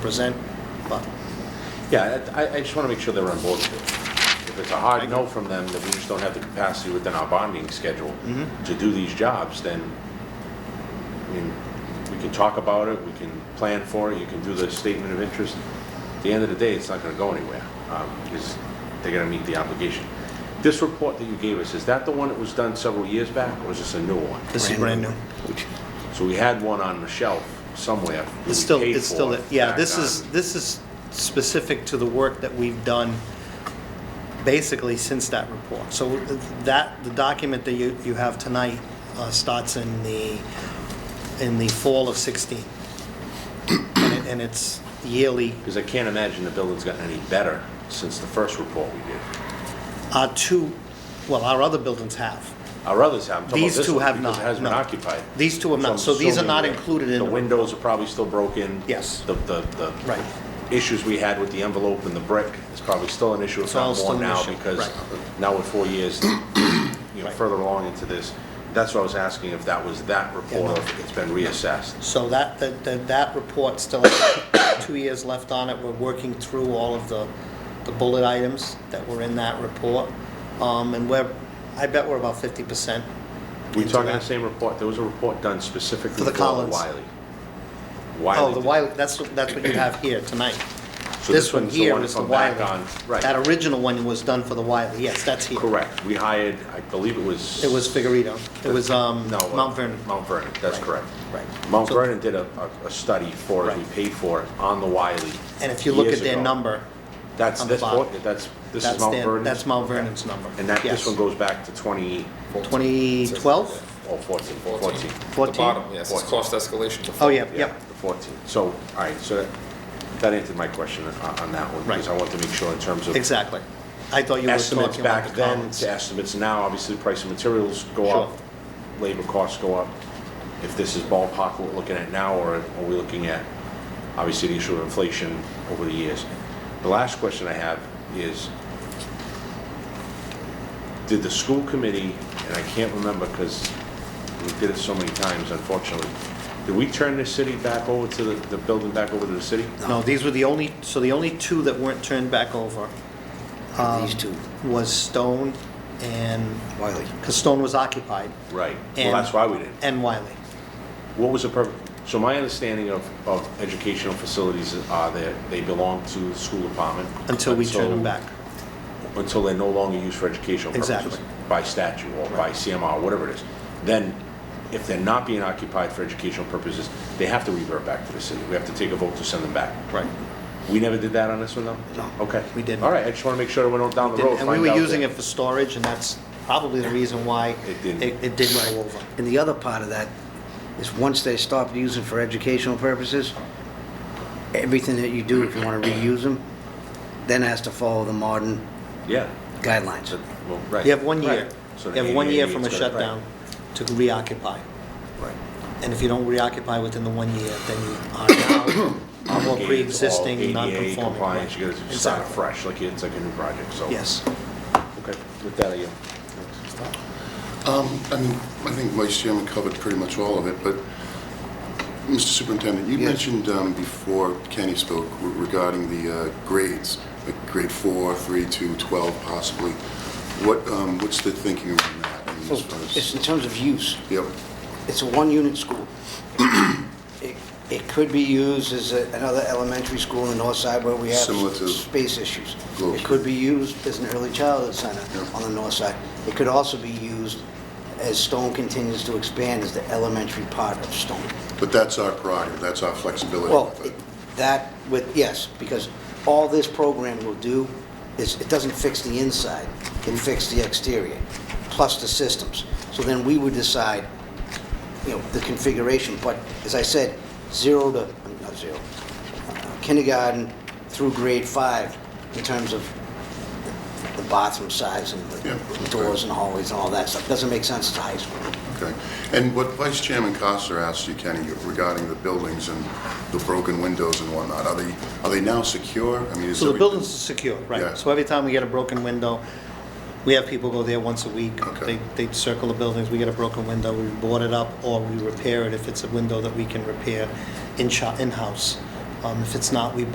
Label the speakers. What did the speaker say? Speaker 1: present, but
Speaker 2: Yeah, I, I just want to make sure they're on board with it. If it's a hard no from them, that we just don't have the capacity within our bonding schedule
Speaker 1: Mm-hmm.
Speaker 2: to do these jobs, then, I mean, we can talk about it, we can plan for it, you can do the statement of interest. At the end of the day, it's not going to go anywhere, um, because they're going to meet the obligation. This report that you gave us, is that the one that was done several years back, or is this a new one?
Speaker 1: this is brand new.
Speaker 2: So we had one on the shelf somewhere. that we
Speaker 1: It's still,
Speaker 2: paid
Speaker 1: it's still,
Speaker 2: for
Speaker 1: yeah,
Speaker 2: back
Speaker 1: this
Speaker 2: on-
Speaker 1: is, this is specific to the work that we've done basically since that report. So uh, that, the document that you, you have tonight uh, starts in the, in the fall of 16. And it- And it's yearly.
Speaker 2: Because I can't imagine the building's gotten any better since the first report we did.
Speaker 1: Our two, well, our other buildings have.
Speaker 2: Our others have, I'm talking about
Speaker 1: These
Speaker 2: this
Speaker 1: two
Speaker 2: one,
Speaker 1: have
Speaker 2: because it
Speaker 1: not,
Speaker 2: has been
Speaker 1: no.
Speaker 2: occupied.
Speaker 1: These two have not,
Speaker 2: I'm
Speaker 1: so these are
Speaker 2: assuming
Speaker 1: not
Speaker 2: that
Speaker 1: included in
Speaker 2: The
Speaker 1: the-
Speaker 2: windows are probably still broken.
Speaker 1: Yes.
Speaker 2: The, the, the.
Speaker 1: Right.
Speaker 2: Issues we had with the envelope and the brick is probably still an issue, if
Speaker 1: It's all
Speaker 2: not
Speaker 1: still
Speaker 2: more
Speaker 1: an
Speaker 2: now,
Speaker 1: issue,
Speaker 2: because
Speaker 1: right.
Speaker 2: now we're four years, you know,
Speaker 1: Right.
Speaker 2: further along into this. That's what I was asking, if that was that report, or if it's been reassessed.
Speaker 1: So that, that, that- that report still, two years left on it, we're working through all of the, the bullet items that were in that report. Um, and we're, I bet we're about fifty percent.
Speaker 2: We talking the same report, there was a report done specifically
Speaker 1: For
Speaker 2: for
Speaker 1: the
Speaker 2: the
Speaker 1: Collins.
Speaker 2: Wiley.
Speaker 1: Oh,
Speaker 2: Wiley
Speaker 1: the
Speaker 2: did-
Speaker 1: Wiley, that's, what- that's what you have here tonight.
Speaker 2: So
Speaker 1: This one
Speaker 2: one's the
Speaker 1: here
Speaker 2: one
Speaker 1: is the
Speaker 2: that's on back
Speaker 1: Wiley.
Speaker 2: on- Right.
Speaker 1: That original one was done for the Wiley, yes, that's here.
Speaker 2: Correct. We hired, I believe it was.
Speaker 1: It was Figueredo, it was, um,
Speaker 2: No, uh,
Speaker 1: Mount Vernon.
Speaker 2: Mount Vernon, that's
Speaker 1: Right.
Speaker 2: correct.
Speaker 1: Right.
Speaker 2: Mount
Speaker 1: So-
Speaker 2: Vernon did a, a- a study for it, we
Speaker 1: Right.
Speaker 2: paid for it on the Wiley.
Speaker 1: And if you look at
Speaker 2: years
Speaker 1: their
Speaker 2: ago.
Speaker 1: number,
Speaker 2: That's
Speaker 1: on the
Speaker 2: this,
Speaker 1: bottom.
Speaker 2: one- that's, this is
Speaker 1: that's
Speaker 2: Mount
Speaker 1: their,
Speaker 2: Vernon.
Speaker 1: that's Mount Vernon's number.
Speaker 2: And that, this
Speaker 1: Yes.
Speaker 2: one goes back to twenty,
Speaker 1: 2012?
Speaker 2: oh, fourteen, fourteen.
Speaker 1: Fourteen?
Speaker 3: The bottom, yes, it's
Speaker 2: Fourteen.
Speaker 3: cost escalation to.
Speaker 1: Oh, yeah,
Speaker 2: Yeah,
Speaker 1: yep.
Speaker 2: the fourteen. So, all right, so that, that answered my question on, on that one. Because
Speaker 1: Right.
Speaker 2: I want to make sure in terms of.
Speaker 1: Exactly. I thought you were
Speaker 2: estimates
Speaker 1: talking about
Speaker 2: back
Speaker 1: the
Speaker 2: then
Speaker 1: Collins.
Speaker 2: to estimates now, obviously the price of materials go
Speaker 1: Sure.
Speaker 2: up, labor costs go up. If this is ballpark what we're looking at now, or are we looking at, obviously the issue of inflation over the years. The last question I have is, did the school committee, and I can't remember because we did it so many times unfortunately, did we turn the city back over to the, the building back over to the city?
Speaker 1: No, these were the only, so the only two that weren't turned back over um,
Speaker 4: These two,
Speaker 1: was Stone and,
Speaker 4: Wiley.
Speaker 1: because Stone was occupied,
Speaker 2: Right, well,
Speaker 1: And-
Speaker 2: that's why we didn't.
Speaker 1: and Wiley.
Speaker 2: What was the purpose? So my understanding of, of educational facilities are that they belong to the school department.
Speaker 1: Until we turned them back.
Speaker 2: Until they're no longer used for educational purposes.
Speaker 1: Exactly.
Speaker 2: By statute or by CMR, whatever it is. Then, if they're not being occupied for educational purposes, they have to revert back to the city. We have to take a vote to send them back.
Speaker 1: Right.
Speaker 2: We never did that on this one, though?
Speaker 1: No,
Speaker 2: Okay.
Speaker 1: we didn't.
Speaker 2: All right, I just want to make sure we don't down the road.
Speaker 1: And we
Speaker 2: find
Speaker 1: were
Speaker 2: out
Speaker 1: using
Speaker 2: that-
Speaker 1: it for storage, and that's probably the reason why
Speaker 2: It
Speaker 1: it
Speaker 2: didn't.
Speaker 1: it did go over.
Speaker 4: And the other part of that is once they stop using for educational purposes, everything that you do, if you want to reuse them, then has to follow the modern
Speaker 2: Yeah.
Speaker 4: guidelines.
Speaker 2: Well, right.
Speaker 1: You have one year,
Speaker 2: Right. So
Speaker 1: you
Speaker 2: the
Speaker 1: have one
Speaker 2: 88
Speaker 1: year from a
Speaker 2: is gonna- right.
Speaker 1: shutdown to reoccupy.
Speaker 2: Right.
Speaker 1: And if you don't reoccupy within the one year, then you are now a more
Speaker 2: gates, all
Speaker 1: pre-existing,
Speaker 2: ADA
Speaker 1: non-conforming.
Speaker 2: compliance, you gotta start
Speaker 1: Exactly.
Speaker 2: fresh, like it's like a new project, so.
Speaker 1: Yes.
Speaker 2: Okay, with that, I yield.
Speaker 5: Um, I mean, I think Vice Chairman covered pretty much all of it, but, Mr. Superintendent, you
Speaker 4: Yes.
Speaker 5: mentioned um, before Kenny spoke re- regarding the uh, grades, like grade four, three, two, 12 possibly. What, um, what's the thinking around that? I mean,
Speaker 4: So
Speaker 5: as far as-
Speaker 4: it's in terms of use.
Speaker 5: Yep,
Speaker 4: It's a one-unit school. It it could be used as a- another elementary school in the north side where we have
Speaker 5: Similar to-
Speaker 4: space issues.
Speaker 5: Close.
Speaker 4: It could be used as an early childhood center on the north side. It could also be used as Stone continues to expand as the elementary part of Stone.
Speaker 5: but that's our prerogative, that's our flexibility.
Speaker 4: Well,
Speaker 5: with
Speaker 4: it-
Speaker 5: it.
Speaker 4: that with, yes, because all this program will do is, it doesn't fix the inside, it fixes the exterior, plus the systems. So then we would decide, you know, the configuration, but as I said, zero to, not zero, uh, kindergarten through grade five in terms of the bathroom size and
Speaker 5: Yeah.
Speaker 4: the doors and hallways and all that stuff. Doesn't make sense to high school.
Speaker 5: Okay. And what Vice Chairman Costa asked you, Kenny, regarding the buildings and the broken windows and whatnot, are they, are they now secure? I mean, is
Speaker 1: So the
Speaker 5: everything-
Speaker 1: building's secure, right?
Speaker 5: Yeah.
Speaker 1: So every time we get a broken window, we have people go there once a week.
Speaker 5: Okay.
Speaker 1: They, they circle the buildings, we get a broken window, we board it up, or we repair it if it's a window that we can repair in shop, in-house. Um, If it's not, we